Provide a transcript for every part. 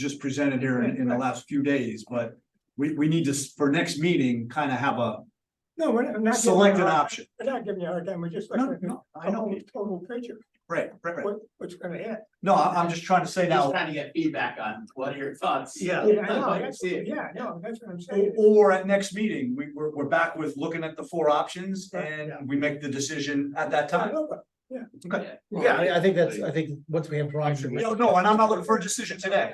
just presented here in, in the last few days, but we, we need to, s- for next meeting, kind of have a No, we're not. I'm not giving you a selected hard- option. We're not giving you a hard time, we're just No, looking no, I at the know, whole total picture, right, right, right. what, what's gonna hit. No, I, I'm just trying to say Just now, trying to get feedback on what are your thoughts? yeah, Yeah, I I'd know, like to that's- see it. yeah, no, that's what I'm o- saying. or at next meeting, we, we're, we're back with looking at the four options Right, and yeah. we make the decision at that time. No, but- Yeah, I, I think that's, I think, once we have drawings. we- No, no, and I'm not looking for a decision today,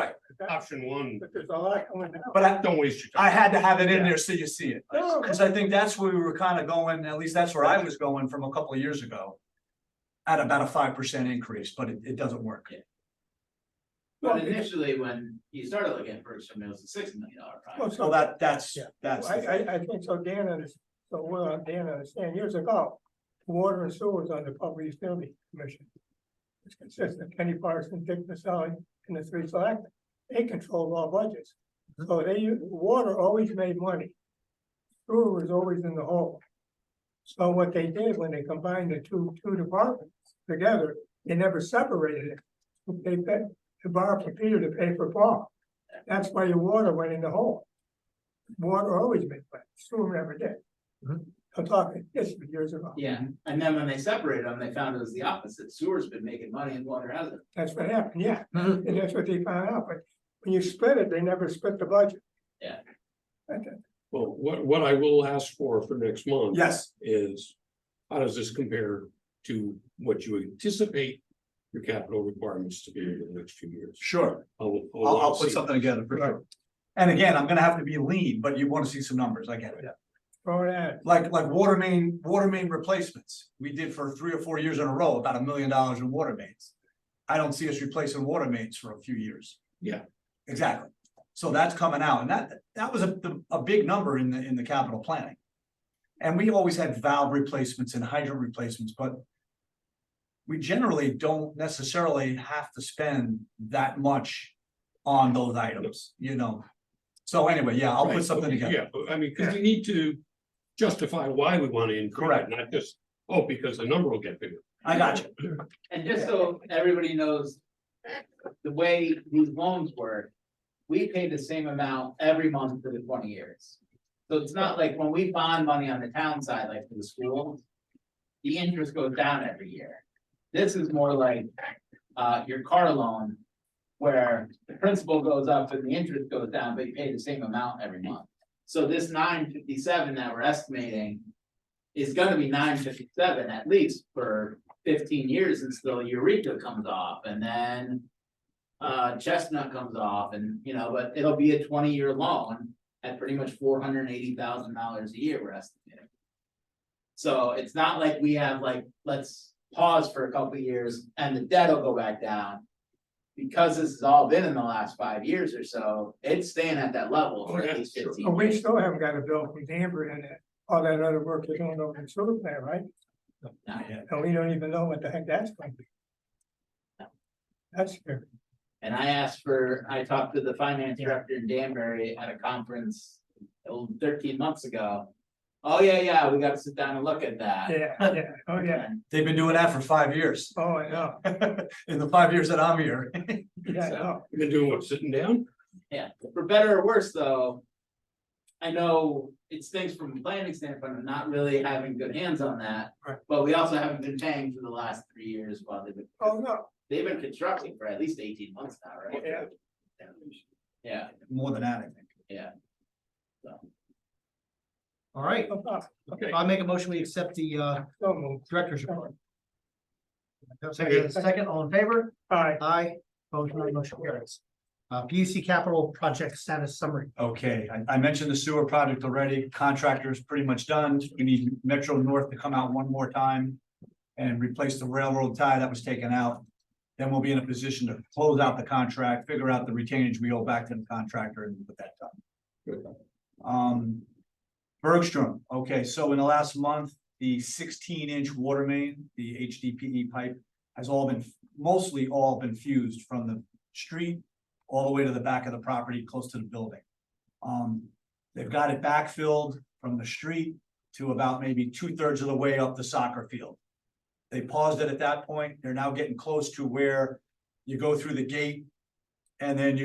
right, Option one, But there's a lot going on. but I, don't waste your I time. had to have it in there so you see it. No, Cause I think that's where we were kind of going, at least that's where I was going from a couple of years ago. At about a five percent increase, but it, it doesn't work. no, But initially, when you started looking at Berkshire Mills, it's a six million dollar Well, project. So so, that, that's, Yeah. that's. the I, thing. I, I think so, Dan, unders- so well, Dan understand, years ago, water and sewer was under public utility commission. It's consistent, Kenny Parson, Dick Maselli, and the three select, they controlled all budgets. So they, u- water always made money. Sewer was always in the hole. So what they did when they combined the two, two departments together, they never separated it. They paid to borrow for Peter to pay for Paul. That's why your water went in the hole. Water always made money, sewer never did. Mhm. I'm talking, this was years ago. Yeah, and then when they separated them, they found it was the opposite. Sewer's been making money and water hasn't. That's what happened, yeah. Mhm. And that's what they found out, but when you split it, they never split the budget. Yeah. Okay. Well, what, what I will ask for for next month Yes, is, how does this compare to what you anticipate your capital requirements to be in the next few years? sure. I'll, I'll, I'll put see. something together for sure. And again, I'm gonna have to be lean, but you wanna see some numbers, I get it. Throw it out. Like, like water main, water main replacements, we did for three or four years in a row, about a million dollars in water mains. I don't see us replacing water mains for a few years. Yeah. Exactly. So that's coming out, and that, that was a, the- a big number in the, in the capital planning. And we always had valve replacements and hydrant replacements, but we generally don't necessarily have to spend that much on those items, you know? So anyway, yeah, I'll put Right, something okay, together. Yeah, but I mean, because we need to justify why we want to increase Correct. it, not just, oh, because the number will get bigger. I got you. And just so everybody knows, the way these loans work, we pay the same amount every month for the twenty years. So it's not like when we bond money on the town side, like for the school, the interest goes down every year. This is more like, uh, your car loan, where the principal goes up and the interest goes down, but you pay the same amount every month. So this nine fifty-seven that we're estimating is gonna be nine fifty-seven at least for fifteen years until Eureka comes off and then. Uh, Chestnut comes off and, you know, but it'll be a twenty-year loan at pretty much four hundred and eighty thousand dollars a year we're estimating. So it's not like we have like, let's pause for a couple of years and the debt will go back down. Because this has all been in the last five years or so, it's staying at that level for at least Oh, yeah, sure. fifteen. But we years. still haven't got a bill from Danbury and that- all that other work they're doing over in sewer plant, right? Not yet. And we Oh, don't even know what the heck that's going to be. That's scary. And I asked for, I talked to the finance director in Danbury at a conference oh, thirteen months ago. Oh, yeah, yeah, we gotta sit down and look at that. Yeah, yeah, oh, yeah, They've been doing that for five years. oh, I know, In the five years that I'm here. yeah, I know. You've been doing what, sitting down? For better or worse, though. I know it's things from a planning standpoint, I'm not really having good hands on that. Right. But we also haven't been paying for the last three years while they've been, Oh, no, they've been constructing for at least eighteen months now, right? Yeah. Yeah, More than that, I think. All right, Oh, no problem. Okay. I'll make a motion, we accept the uh Don't move. director's report. Second, second, all in favor? All right, Aye. Opposed, none, motion carries. Uh, B U C capital project status summary. Okay, I, I mentioned the sewer project already. Contractor is pretty much done. We need Metro North to come out one more time. And replace the railroad tie that was taken out. Then we'll be in a position to close out the contract, figure out the retainage we owe back to the contractor and put that done. Um, Bergstrom, okay, so in the last month, the sixteen inch water main, the HDPE E pipe. Has all been, mostly all been fused from the street all the way to the back of the property, close to the building. Um, they've got it backfilled from the street to about maybe two thirds of the way up the soccer field. They paused it at that point. They're now getting close to where you go through the gate And then you